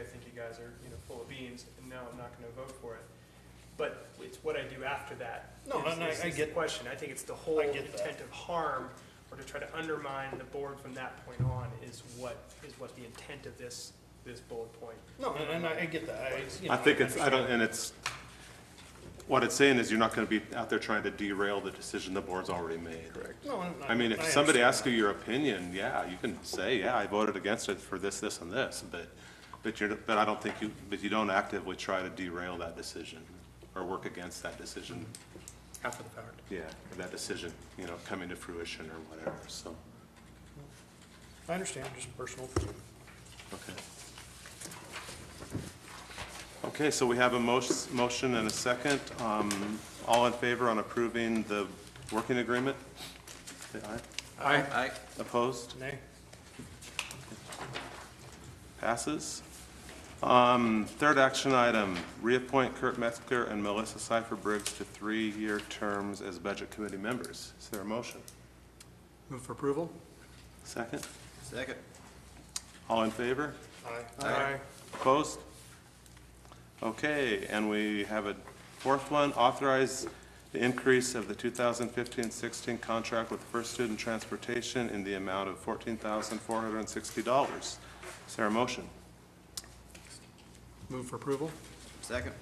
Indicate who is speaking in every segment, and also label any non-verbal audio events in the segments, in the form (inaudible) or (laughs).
Speaker 1: I think you guys are, you know, full of beans, and no, I'm not gonna vote for it. But it's what I do after that.
Speaker 2: No,
Speaker 1: is-
Speaker 2: and I-
Speaker 1: is-
Speaker 2: I
Speaker 1: is the
Speaker 2: get-
Speaker 1: Question, I think it's the whole
Speaker 2: I get that.
Speaker 1: intent of harm, or to try to undermine the board from that point on is what, is what the intent of this, this bullet point.
Speaker 2: No, and and I I get that, I, you know.
Speaker 3: I think it's, I don't,
Speaker 2: understand.
Speaker 3: and it's, what it's saying is you're not gonna be out there trying to derail the decision the board's already made. Correct.
Speaker 2: No, and
Speaker 3: I mean, if somebody
Speaker 2: understand
Speaker 3: asks you
Speaker 2: that.
Speaker 3: your opinion, yeah, you can say, yeah, I voted against it for this, this, and this, but, but you're, but I don't think you, but you don't actively try to derail that decision or work against that decision,
Speaker 1: After the fact.
Speaker 3: yeah, or that decision, you know, coming to fruition or whatever, so,
Speaker 2: I understand, just personal. opinion.
Speaker 3: okay. Okay, so we have a motion, motion and a second. Um, all in favor on approving the working agreement? Say aye.
Speaker 4: Aye.
Speaker 3: Opposed?
Speaker 2: Nay,
Speaker 3: Passes. Um, Third action item, reappoint Kurt Metzger and Melissa Cipher Briggs to three-year terms as Budget Committee members. Is there a motion?
Speaker 4: Move for approval?
Speaker 3: Second?
Speaker 4: Second.
Speaker 3: All in favor?
Speaker 2: aye.
Speaker 4: Aye.
Speaker 3: Opposed? Okay, and we have a fourth one, authorize the increase of the 2015-16 contract with First Student Transportation in the amount of $14,460. Is there a motion?
Speaker 4: Move for approval? Second.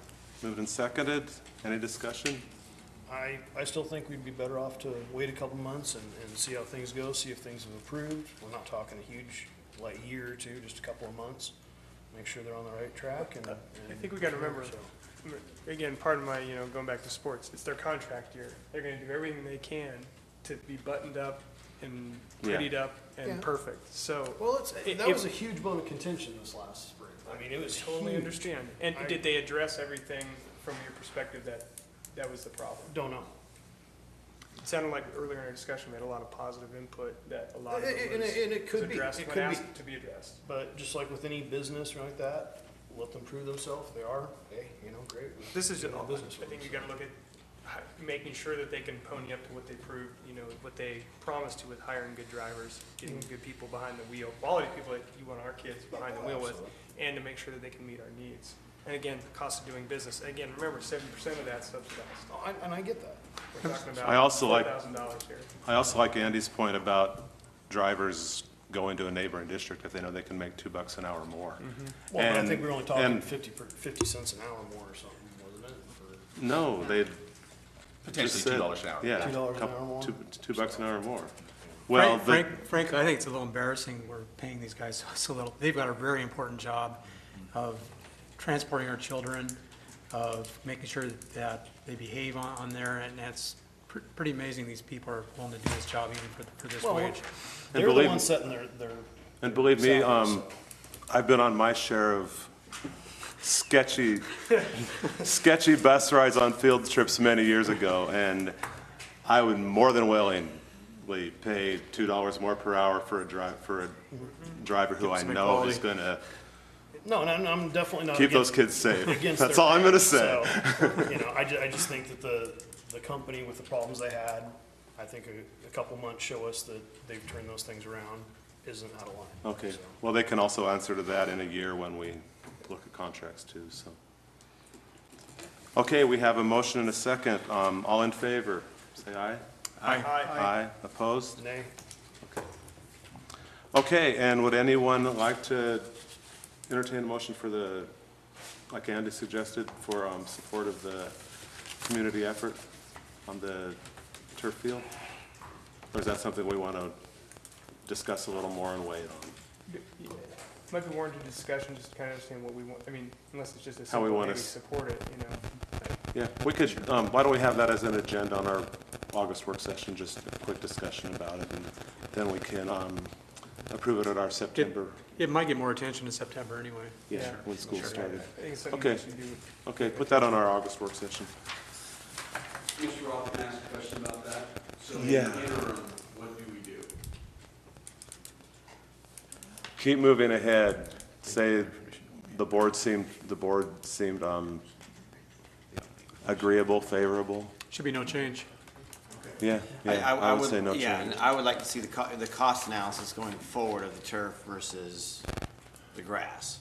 Speaker 3: Moved and seconded. Any discussion?
Speaker 2: I, I still think we'd be better off to wait a couple months and, and see how things go, see if things have improved. We're not talking a huge, like, year or two, just a couple of months. Make sure they're on the right track and.
Speaker 1: I think we gotta remember,
Speaker 2: So,
Speaker 1: again, part of my, you know, going back to sports, it's their contract year. They're gonna do everything they can to be buttoned up and
Speaker 3: Yeah.
Speaker 1: prettied up
Speaker 2: Yeah.
Speaker 1: and perfect, so.
Speaker 2: Well, it's,
Speaker 1: If-
Speaker 2: that was a huge bone of contention this last spring. I mean, it was
Speaker 1: Totally
Speaker 2: huge.
Speaker 1: understand. And
Speaker 2: I-
Speaker 1: did they address everything from your perspective that, that was the problem?
Speaker 2: Don't know.
Speaker 1: It sounded like earlier in our discussion, we had a lot of positive input that a lot of
Speaker 2: And
Speaker 1: it
Speaker 2: it,
Speaker 1: was
Speaker 2: and it
Speaker 1: was
Speaker 2: could be,
Speaker 1: addressed
Speaker 2: it
Speaker 1: when
Speaker 2: could be.
Speaker 1: asked to be addressed.
Speaker 2: But just like with any business or like that, let them prove themselves. If They are, hey, you know, great.
Speaker 1: This is,
Speaker 2: Doing
Speaker 1: just-
Speaker 2: their business
Speaker 1: I think you
Speaker 2: with
Speaker 1: gotta look at hi- making sure that they can pony up to what they proved, you know, what they promised to with hiring good drivers, getting
Speaker 2: Mm-hmm.
Speaker 1: good people behind the wheel, quality people that you want our kids behind the wheel with, and to make sure that they can meet our needs. And again, the cost of doing business, again, remember, seventy percent of that's subsidized.
Speaker 2: Oh, and, and I get that.
Speaker 1: We're talking about
Speaker 3: I also like-
Speaker 1: $4,000 here.
Speaker 3: I also like Andy's point about drivers going to a neighboring district if they know they can make two bucks an hour more.
Speaker 5: Mm-hmm.
Speaker 2: Well, but I
Speaker 3: And-
Speaker 2: think we were only talking
Speaker 3: and-
Speaker 2: fifty per, fifty cents an hour more or something, wasn't it? for-
Speaker 3: No, they.
Speaker 5: Potentially two dollars an hour.
Speaker 3: Yeah.
Speaker 2: Two dollars an
Speaker 3: couple-
Speaker 2: hour more?
Speaker 3: Two, two bucks an hour more. Well,
Speaker 6: Frank-
Speaker 3: the,
Speaker 6: Frank, Frank, I think it's a little embarrassing we're paying these guys (laughs) so- so little. They've got a very important job of transporting our children, of making sure that they behave on, on there, and that's pr- pretty amazing these people are willing to do this job even for, for this
Speaker 2: Well,
Speaker 6: wage.
Speaker 2: They're the
Speaker 3: believe-
Speaker 2: ones setting their, their,
Speaker 3: and believe me,
Speaker 2: South,
Speaker 3: um, I've been on my share of sketchy, sketchy bus rides on field trips many years ago, and I would more than willingly pay two dollars more per hour for a drive, for a driver who I know is gonna
Speaker 2: no, and I'm, I'm definitely not.
Speaker 3: keep
Speaker 2: against-
Speaker 3: those kids safe.
Speaker 2: against
Speaker 3: (laughs) That's
Speaker 2: their
Speaker 3: all I'm gonna
Speaker 2: parents,
Speaker 3: say.
Speaker 2: so, You know, I ju- I just think that the, the company with the problems they had, I think a, a couple months show us that they've turned those things around, isn't out of line.
Speaker 3: Okay,
Speaker 2: so.
Speaker 3: well, they can also answer to that in a year when we look at contracts too, so. Okay, we have a motion and a second. Um, all in favor, say aye.
Speaker 1: Aye.
Speaker 3: Aye. Opposed?
Speaker 2: Nay,
Speaker 3: Okay, and would anyone like to entertain a motion for the, like Andy suggested, for, um, support of the community effort on the turf field? Or is that something we want to discuss a little more and wait on?
Speaker 1: Might be warranted discussion, just to kind of understand what we want, I mean, unless it's just a
Speaker 3: How we
Speaker 1: simple,
Speaker 3: want
Speaker 1: maybe
Speaker 3: us-
Speaker 1: support it, you know?
Speaker 3: Yeah, we could, um, why don't we have that as an agenda on our August work session, just a quick discussion about it, and then we can, um, approve it at our September,
Speaker 6: It might get more attention in September anyway.
Speaker 3: yeah,
Speaker 1: Sure.
Speaker 3: when school
Speaker 6: Sure.
Speaker 3: started.
Speaker 1: I think it's something we
Speaker 3: Okay.
Speaker 1: should do.
Speaker 3: Okay, put that on our August work session.
Speaker 7: Mr. Roth can I ask a question about that. So in the
Speaker 3: Yeah.
Speaker 7: interim, what do we do?
Speaker 3: Keep moving ahead, say, the board seemed, the board seemed, um, agreeable, favorable,
Speaker 6: Should be no change.
Speaker 3: yeah, yeah, I would say no
Speaker 8: Yeah,
Speaker 3: change.
Speaker 8: and I would like to see the co- the cost analysis going forward of the turf versus the grass.